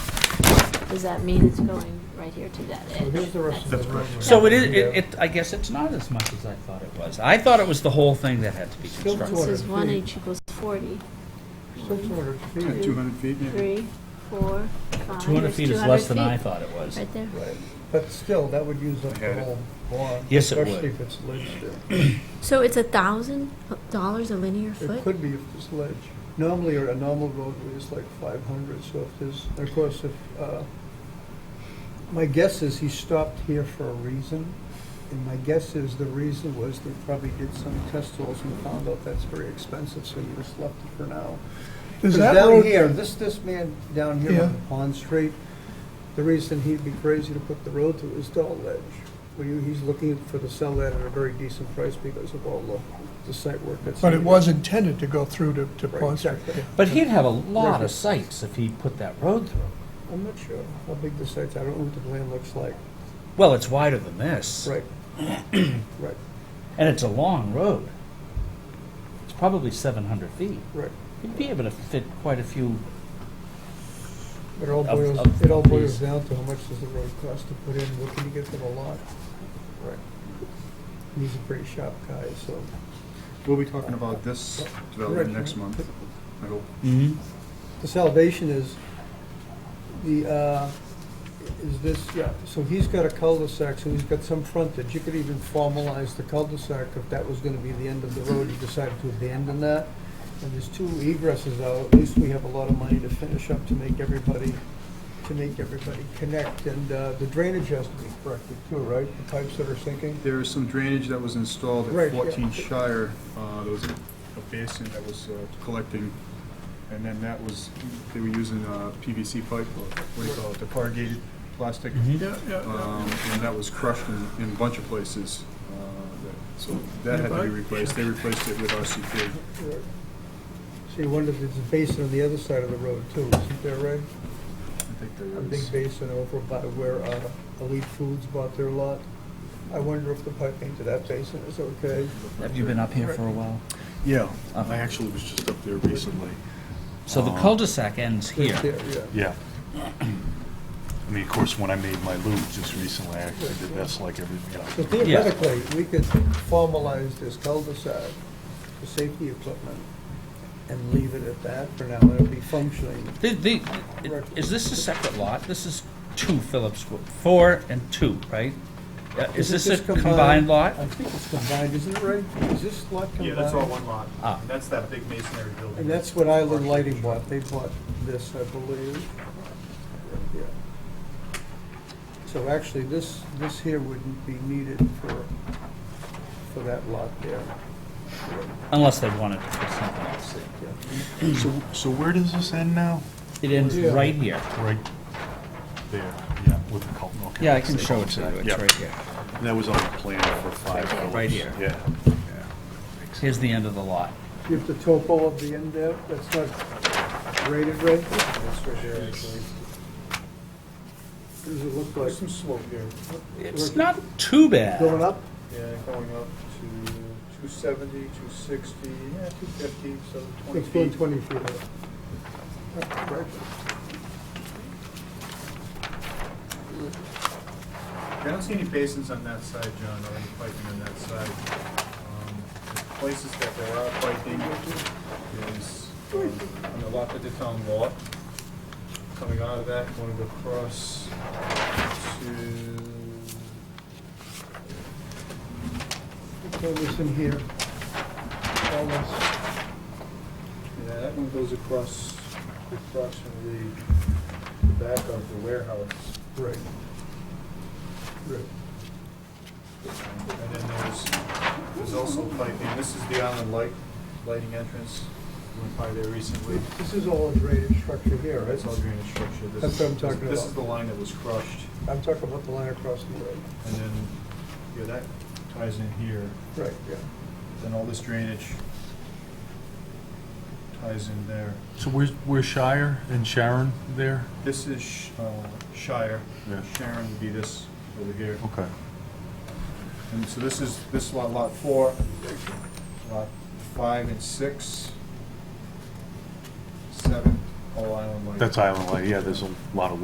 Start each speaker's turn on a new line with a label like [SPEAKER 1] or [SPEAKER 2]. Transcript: [SPEAKER 1] does that mean it's going right here to that
[SPEAKER 2] So here's
[SPEAKER 1] edge?
[SPEAKER 2] the rest of the
[SPEAKER 1] That's-
[SPEAKER 2] roadway.
[SPEAKER 3] So it is, it, it, I guess it's not as much as I thought it was. I thought it was the whole thing that had to be
[SPEAKER 2] Still
[SPEAKER 3] constructed.
[SPEAKER 1] This is
[SPEAKER 2] 200
[SPEAKER 1] one
[SPEAKER 2] feet.
[SPEAKER 1] H equals 40.
[SPEAKER 2] Six hundred
[SPEAKER 1] Yeah,
[SPEAKER 2] feet.
[SPEAKER 1] two-
[SPEAKER 4] 200 feet, yeah.
[SPEAKER 1] Three, four, five.
[SPEAKER 3] Two hundred
[SPEAKER 1] It's
[SPEAKER 3] feet is
[SPEAKER 1] 200
[SPEAKER 3] less than I
[SPEAKER 1] feet.
[SPEAKER 3] thought it was.
[SPEAKER 1] Right there.
[SPEAKER 2] But still, that would use up the
[SPEAKER 4] Yeah.
[SPEAKER 2] whole lawn.
[SPEAKER 3] Yes, it would.
[SPEAKER 2] Especially if it's ledged
[SPEAKER 1] So it's a thousand dollars a linear
[SPEAKER 2] there. It
[SPEAKER 1] foot?
[SPEAKER 2] could be if it's ledge. Normally, a normal roadway is like five hundred, so if there's, and of course, if, uh, my guess is he stopped here for a reason. And my guess is the reason was they probably did some test holes and found out that's very expensive, so you just left it for now.
[SPEAKER 5] Is
[SPEAKER 2] Because
[SPEAKER 5] that
[SPEAKER 2] down
[SPEAKER 5] road-
[SPEAKER 2] here, this, this man down here
[SPEAKER 5] Yeah.
[SPEAKER 2] on Pond Street, the reason he'd be crazy to put the road through is all ledge. Well, you- he's looking for the sell that at a very decent price because of all the, the site work that's.
[SPEAKER 5] But it
[SPEAKER 2] needed.
[SPEAKER 5] was intended to go through to, to
[SPEAKER 2] Right,
[SPEAKER 5] Pond Street.
[SPEAKER 2] exactly.
[SPEAKER 3] But he'd have a lot of sites if he put that road through.
[SPEAKER 2] I'm not sure how big the site's, I don't know what the land looks like.
[SPEAKER 3] Well, it's wider than this.
[SPEAKER 2] Right. Right,
[SPEAKER 3] And it's a long road. It's probably seven hundred feet.
[SPEAKER 2] right.
[SPEAKER 3] He'd be able to fit quite a few,
[SPEAKER 2] It all
[SPEAKER 3] Of-
[SPEAKER 2] boils,
[SPEAKER 3] of-
[SPEAKER 2] it all boils
[SPEAKER 3] these.
[SPEAKER 2] down to how much does the road cost to put in, what can you get for the lot? Right. He's a pretty sharp guy, so.
[SPEAKER 4] We'll be talking about this development next month, I hope.
[SPEAKER 3] Mm-hmm.
[SPEAKER 2] The salvation is, the, uh, is this, yeah, so he's got a cul-de-sac, so he's got some frontage. You could even formalize the cul-de-sac if that was gonna be the end of the road, you decided to abandon that. And there's two egresses out, at least we have a lot of money to finish up to make everybody, to make everybody connect. And uh, the drainage has to be corrected too, right? The pipes that are sinking?
[SPEAKER 4] There is some drainage that was installed
[SPEAKER 2] Right,
[SPEAKER 4] at
[SPEAKER 2] yeah.
[SPEAKER 4] 14 Shire. Uh, There was a a basin that was uh, collecting, and then that was, they were using uh, PVC pipe, or what do you call it, the corrugated plastic.
[SPEAKER 5] Yeah,
[SPEAKER 4] Um, And that was crushed in, in a bunch of places. uh, that- So that had to be replaced. They replaced it with RCP.
[SPEAKER 2] Right. So you wonder if there's a basin on the other side of the road too, isn't there, Ray?
[SPEAKER 4] I think there
[SPEAKER 2] a
[SPEAKER 4] is.
[SPEAKER 2] big basin over by where uh, Elite Foods bought their lot. I wonder if the piping to that basin is okay.
[SPEAKER 3] have you been up here for a while?
[SPEAKER 6] Yeah, I actually was just up there recently.
[SPEAKER 3] So the cul-de-sac ends here.
[SPEAKER 2] Yeah,
[SPEAKER 6] Yeah. I mean, of course, when I made my loop just recently, I actually did this like every, you
[SPEAKER 2] So
[SPEAKER 6] know.
[SPEAKER 2] theoretically, we could formalize this cul-de-sac for safety equipment and leave it at that for now. It'll be functioning.
[SPEAKER 3] The, the,
[SPEAKER 2] Right.
[SPEAKER 3] is this a separate lot? This is two Phillips, Wo- four and two, right? Uh, Is
[SPEAKER 2] it
[SPEAKER 3] this a
[SPEAKER 2] just
[SPEAKER 3] combined lot?
[SPEAKER 2] I think it's combined, isn't it, Ray? Is this lot combined?
[SPEAKER 7] Yeah, that's all one lot.
[SPEAKER 3] Ah.
[SPEAKER 7] And That's that big masonry building.
[SPEAKER 2] And that's what Island Lighting bought. They bought this, I believe. Yeah. So actually, this, this here wouldn't be needed for, for that lot there.
[SPEAKER 3] Unless they wanted to put something else in.
[SPEAKER 6] So, so where does this end now?
[SPEAKER 3] It ends
[SPEAKER 2] Yeah.
[SPEAKER 3] right here.
[SPEAKER 6] Right there, yeah, with the cul, okay.
[SPEAKER 3] Yeah, I can show it to you. It's
[SPEAKER 6] Yeah.
[SPEAKER 3] right here.
[SPEAKER 6] And that was on the plan for five dollars.
[SPEAKER 3] Right here.
[SPEAKER 6] Yeah.
[SPEAKER 3] Here's the end of the lot.
[SPEAKER 2] You have the topo of the end there, that's not rated right? Does it look like? Some slope here.
[SPEAKER 3] It's not too
[SPEAKER 2] Going
[SPEAKER 3] bad.
[SPEAKER 2] up?
[SPEAKER 7] Yeah, going up to two seventy, two sixty, yeah, two fifty, so twenty
[SPEAKER 2] It's going
[SPEAKER 7] feet.
[SPEAKER 2] twenty feet up. Right.
[SPEAKER 7] I don't see any basins on that side, John, or any piping on that side. Um, the Places that there are piping is um, on the lot that they found lot. Coming out of that, going across to,
[SPEAKER 2] Throw this in here. All this.
[SPEAKER 7] yeah, that one goes across approximately the back of the warehouse.
[SPEAKER 2] Right. Right.
[SPEAKER 7] And then there's, there's also piping, this is the island light, lighting entrance, went by there recently.
[SPEAKER 2] This is all a drainage structure here, right?
[SPEAKER 7] That's all drainage structure. This
[SPEAKER 2] That's what I'm
[SPEAKER 7] is-
[SPEAKER 2] talking
[SPEAKER 7] This
[SPEAKER 2] about.
[SPEAKER 7] is the line that was crushed,
[SPEAKER 2] I'm talking about the line across the road.
[SPEAKER 7] and then, yeah, that ties in here,
[SPEAKER 2] Right, yeah.
[SPEAKER 7] then all this drainage ties in there.
[SPEAKER 6] So where's, where's Shire and Sharon there?
[SPEAKER 7] This is Sh- uh, Shire,
[SPEAKER 6] Yeah.
[SPEAKER 7] Sharon would be this over here.
[SPEAKER 6] Okay.
[SPEAKER 7] And so this is, this is lot, lot four, lot five and six, seven, all island lighting.
[SPEAKER 6] That's Island Light, yeah, there's a lot of